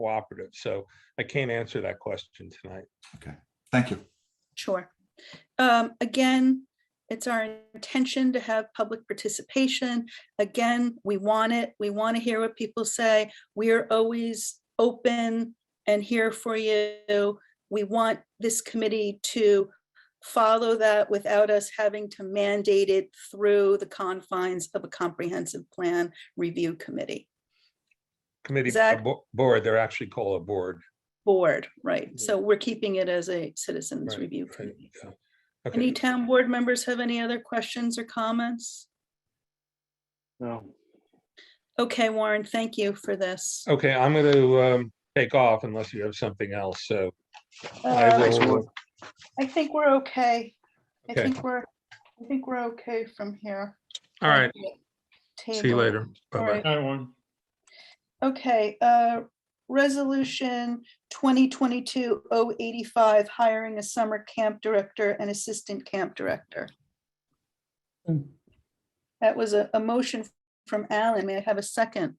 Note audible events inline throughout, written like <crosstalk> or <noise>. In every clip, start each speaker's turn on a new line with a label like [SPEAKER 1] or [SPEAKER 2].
[SPEAKER 1] cooperative. So I can't answer that question tonight.
[SPEAKER 2] Thank you.
[SPEAKER 3] Sure. Um, Again, it's our intention to have public participation. Again, we want it. We want to hear what people say. We are always open and here for you. We want this committee to follow that without us having to mandate it through the confines of a comprehensive plan review committee
[SPEAKER 1] Committee,
[SPEAKER 3] Zach?
[SPEAKER 1] uh, bo- board, they're actually called a board.
[SPEAKER 3] board, right? So we're keeping it as a citizens
[SPEAKER 1] Right,
[SPEAKER 3] review
[SPEAKER 1] right,
[SPEAKER 3] committee.
[SPEAKER 1] yeah. Okay.
[SPEAKER 3] Any town board members have any other questions or comments?
[SPEAKER 4] No.
[SPEAKER 3] Okay, Warren, thank you for this.
[SPEAKER 1] Okay, I'm going to take off unless you have something else. So I
[SPEAKER 3] Uh,
[SPEAKER 1] will,
[SPEAKER 3] I think we're okay. I
[SPEAKER 1] Okay.
[SPEAKER 3] think we're, I think we're okay from here.
[SPEAKER 1] uh, all right, see you
[SPEAKER 3] Table.
[SPEAKER 1] later.
[SPEAKER 3] All
[SPEAKER 1] Bye-bye.
[SPEAKER 3] right. Okay, uh, resolution 2022 085 hiring a summer camp director and assistant camp director.
[SPEAKER 4] Mm.
[SPEAKER 3] That was a, a motion from Alan. May I have a second?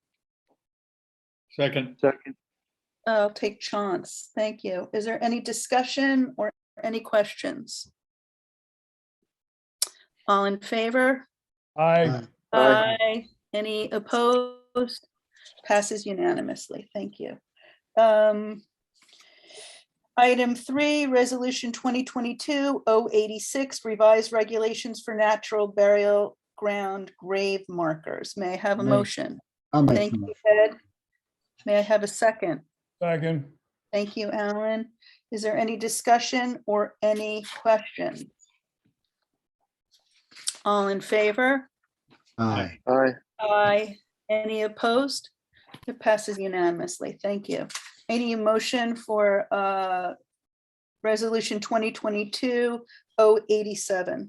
[SPEAKER 4] Second. Second.
[SPEAKER 3] I'll take chance. Thank you. Is there any discussion or any questions? All in favor?
[SPEAKER 4] Aye. Aye.
[SPEAKER 3] Aye. Any opposed? Passes unanimously. Thank you. Um, Item three, Resolution 2022-086, revised regulations for natural burial ground grave markers. May I have a
[SPEAKER 5] May-
[SPEAKER 3] motion?
[SPEAKER 5] I'll make
[SPEAKER 3] Thank
[SPEAKER 5] the
[SPEAKER 3] you,
[SPEAKER 5] motion.
[SPEAKER 3] Ed. May I have a second?
[SPEAKER 4] Second.
[SPEAKER 3] Thank you, Alan. Is there any discussion or any questions? All in favor?
[SPEAKER 5] Aye.
[SPEAKER 4] Aye.
[SPEAKER 3] Aye. Any opposed? It passes unanimously. Thank you. Any motion for uh, Resolution 2022-087?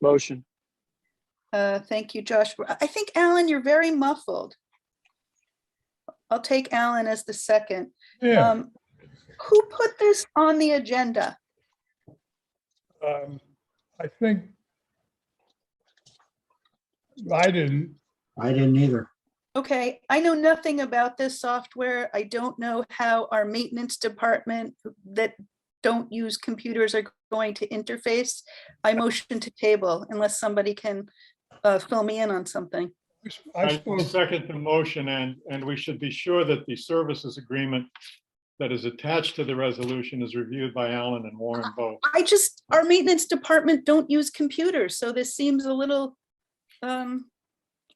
[SPEAKER 4] Motion.
[SPEAKER 3] Uh, Thank you, Josh. I think, Alan, you're very muffled. I'll take Alan as the second.
[SPEAKER 4] Yeah.
[SPEAKER 3] Um, Who put this on the agenda?
[SPEAKER 4] um, I think I didn't.
[SPEAKER 5] I didn't either.
[SPEAKER 3] Okay, I know nothing about this software. I don't know how our maintenance department that don't use computers are going to interface. I motion to table unless somebody can uh, fill me in on something.
[SPEAKER 4] I
[SPEAKER 6] I
[SPEAKER 4] spoke,
[SPEAKER 6] second the motion and, and we should be sure that the services agreement that is attached to the resolution is reviewed by Alan and Warren both.
[SPEAKER 3] I just, our maintenance department don't use computers, so this seems a little, um,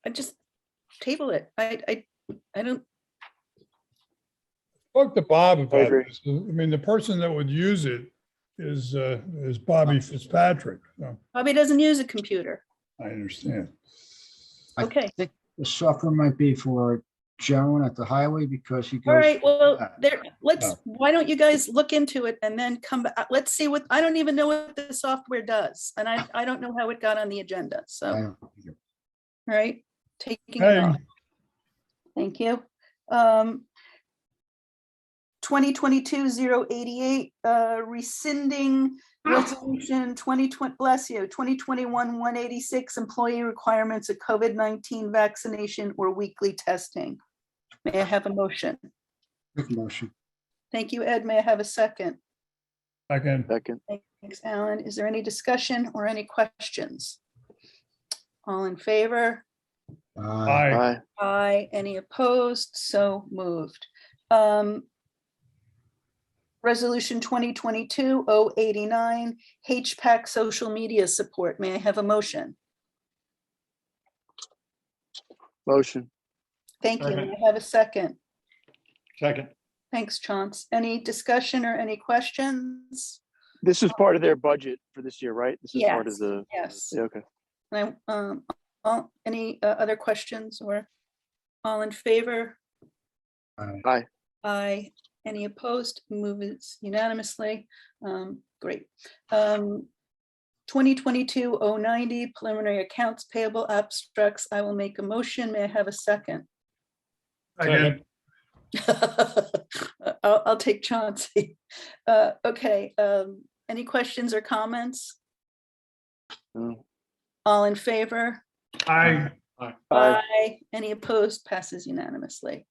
[SPEAKER 3] I just table it. I, I, I don't,
[SPEAKER 4] spoke to Bob about
[SPEAKER 6] agree.
[SPEAKER 4] this. I mean, the person that would use it is, uh, is Bobby Fitzpatrick. So,
[SPEAKER 3] Bobby doesn't use a computer.
[SPEAKER 4] I understand.
[SPEAKER 5] I
[SPEAKER 3] Okay.
[SPEAKER 5] think The software might be for Joan at the highway because he goes.
[SPEAKER 3] All right, well,
[SPEAKER 5] that.
[SPEAKER 3] there, let's,
[SPEAKER 5] No.
[SPEAKER 3] why don't you guys look into it and then come back? Let's see what, I don't even know what the software does. And I, I don't know how it got on the agenda. So,
[SPEAKER 5] I
[SPEAKER 3] all
[SPEAKER 5] don't either.
[SPEAKER 3] right, taking it
[SPEAKER 4] Hey.
[SPEAKER 3] off. Thank you. Um, 2022-088, uh, rescinding resolution 2020, bless you, 2021-186, employee requirements of COVID-19 vaccination or weekly testing. May I have a motion?
[SPEAKER 5] Make a motion.
[SPEAKER 3] Thank you, Ed. May I have a second?
[SPEAKER 4] Second.
[SPEAKER 7] Second,
[SPEAKER 3] Thanks, Alan. Is there any discussion or any questions? All in favor?
[SPEAKER 5] Aye.
[SPEAKER 4] Aye.
[SPEAKER 7] aye,
[SPEAKER 3] Aye. Any opposed? So moved. Um, Resolution 2022-089, HPAC social media support. May I have a motion?
[SPEAKER 7] motion,
[SPEAKER 3] Thank you. May I have a second?
[SPEAKER 6] Second.
[SPEAKER 3] Thanks, Chance. Any discussion or any questions?
[SPEAKER 7] this is part of their budget for this year, right? This is part of
[SPEAKER 3] Yes,
[SPEAKER 7] the,
[SPEAKER 3] Yes.
[SPEAKER 7] yeah, okay,
[SPEAKER 3] And I, um, all, any uh, other questions or all in favor?
[SPEAKER 5] Aye.
[SPEAKER 7] Aye.
[SPEAKER 3] Aye. Any opposed? Moves unanimously. Um, great. Um, 2022-090 preliminary accounts payable abstracts. I will make a motion. May I have a second? <laughs>
[SPEAKER 4] Second.
[SPEAKER 3] I'll, I'll take Chauncey. <laughs> Uh, okay, um, any questions or comments?
[SPEAKER 7] No.
[SPEAKER 3] All in favor?
[SPEAKER 4] Aye.
[SPEAKER 3] Uh, Aye. Any opposed? Passes unanimously.